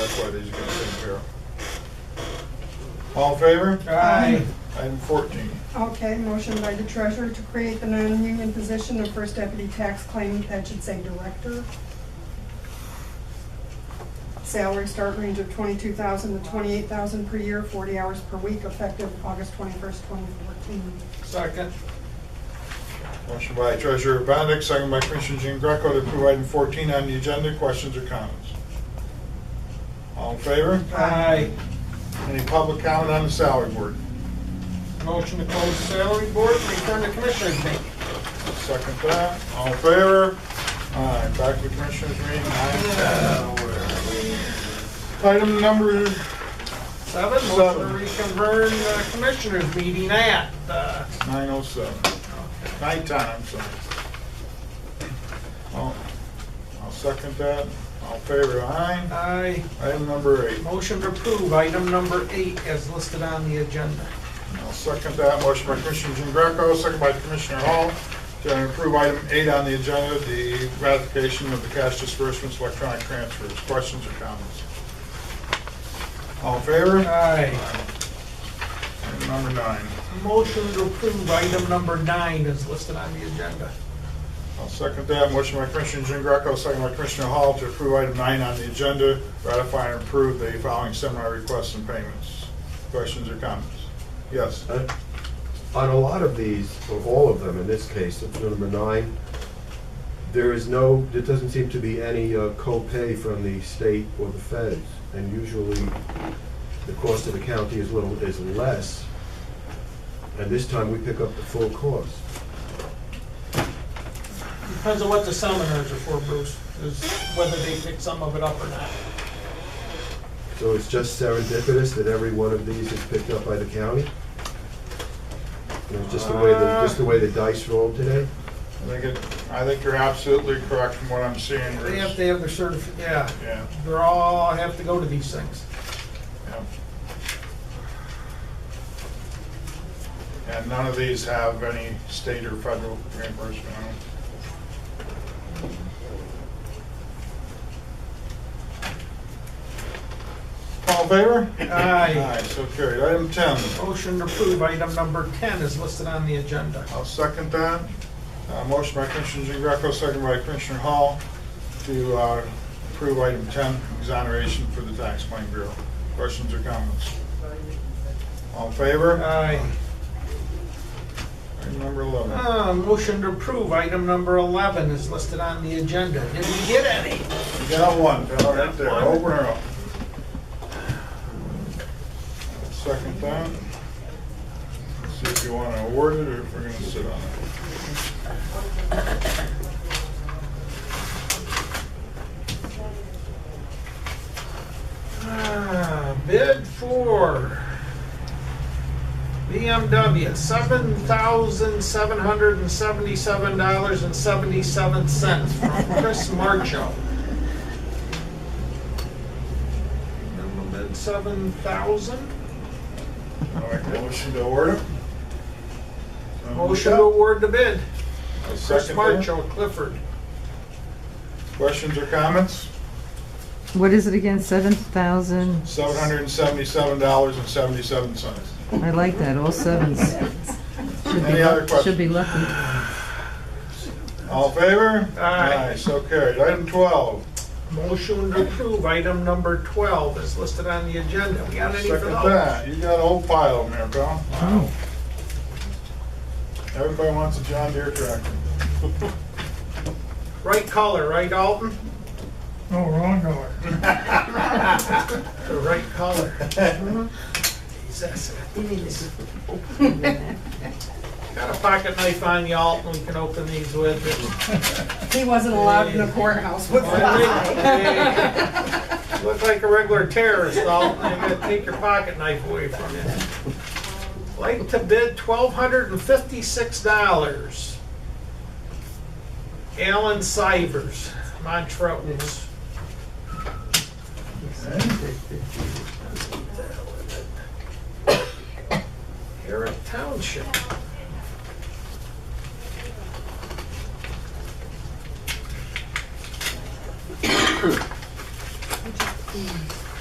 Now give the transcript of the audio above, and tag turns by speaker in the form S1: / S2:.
S1: are these gonna take care of? All in favor?
S2: Aye.
S1: Item fourteen.
S3: Okay, motion by the treasurer to create the non-union position of first deputy tax claim, that should say director. Salary start range of twenty-two thousand to twenty-eight thousand per year, forty hours per week, effective August twenty-first, twenty fourteen.
S2: Second.
S1: Motion by Treasurer Benedict, second by Commissioner Jean Greco to approve item fourteen on the agenda. Questions or comments? All in favor?
S2: Aye.
S1: Any public comment on the salary board?
S2: Motion to close salary board, return to commissioners meeting.
S1: Second that. All in favor? Aye. Back to Commissioners meeting, nine ten. Item number
S2: Seven, motion to reconvene the commissioners meeting at, uh,
S1: nine oh seven. Nighttime, I'm sorry. I'll I'll second that. All in favor? Aye.
S2: aye.
S1: Item number eight.
S2: Motion to approve item number eight as listed on the agenda.
S1: I'll second that. Motion by Commissioner Jean Greco, second by Commissioner Hall, to approve item eight on the agenda, the ratification of the cash disbursements, electronic transfers. Questions or comments? All in favor?
S2: Aye.
S1: Item number nine.
S2: Motion to approve item number nine is listed on the agenda.
S1: I'll second that. Motion by Commissioner Jean Greco, second by Commissioner Hall, to approve item nine on the agenda, ratify and approve the following seminar requests and payments. Questions or comments? Yes.
S4: Uh, On a lot of these, or all of them in this case, of number nine, there is no, there doesn't seem to be any uh, co-pay from the state or the feds. And usually, the cost of the county is little, is less. And this time, we pick up the full cost.
S2: Depends on what the seminars are for, Bruce, is whether they pick some of it up or not.
S4: So it's just serendipitous that every one of these is picked up by the county? You know, just the way, the just the way the dice rolled today?
S1: I think it, I think you're absolutely correct from what I'm seeing.
S2: They
S1: Bruce.
S2: have to have their certif, yeah,
S1: Yeah.
S2: they're all, have to go to these things.
S1: Yep. And none of these have any state or federal reimbursement on them? All in favor?
S2: Aye.
S1: Aye, so carried. Item 10,
S2: Motion to approve item number 10 is listed on the agenda.
S1: I'll second that. Uh, Motion by Commissioner Jean Greco, second by Commissioner Hall to uh, approve item 10, exoneration for the Tax Claim Bureau. Questions or comments? All in favor?
S2: Aye.
S1: Item number 11.
S2: Uh, Motion to approve item number 11 is listed on the agenda. Did we get any?
S1: You got one, Bill, right there,
S2: Got one.
S1: open her up. Second time. See if you want to award it or if we're going to sit on it.
S2: Ah, Bid for BMW, $7,777.77 from Chris Marcho. Minimum bid 7,000.
S1: I'll make a motion to award it.
S2: Motion to award the bid.
S1: I'll
S2: Chris
S1: second that.
S2: Marcho, Clifford.
S1: Questions or comments?
S5: What is it again, seven thousand?
S1: Seven hundred and seventy-seven dollars and seventy-seven cents.
S5: I like that, all sevens. Should be
S1: Any other
S5: luck- Should be
S1: questions?
S5: lucky.
S1: All in favor?
S2: Aye.
S1: So carried. Item twelve.
S2: Motion to approve item number 12 is listed on the agenda. We got any for
S1: Second
S2: those?
S1: that. You got a whole pile in there, pal.
S5: Oh,
S1: Everybody wants a John Deere tractor.
S2: Right color, right Alton?
S1: No, wrong color.
S2: The right color. Jesus. Got a pocket knife on you, Alton, we can open these with.
S3: He wasn't allowed in the courthouse with
S2: Hey, Look like a regular terrorist, Alton, I'm gonna take your pocket knife away from you. Like to bid twelve hundred and fifty-six dollars. Alan Sivers, Montrose. Eric Township.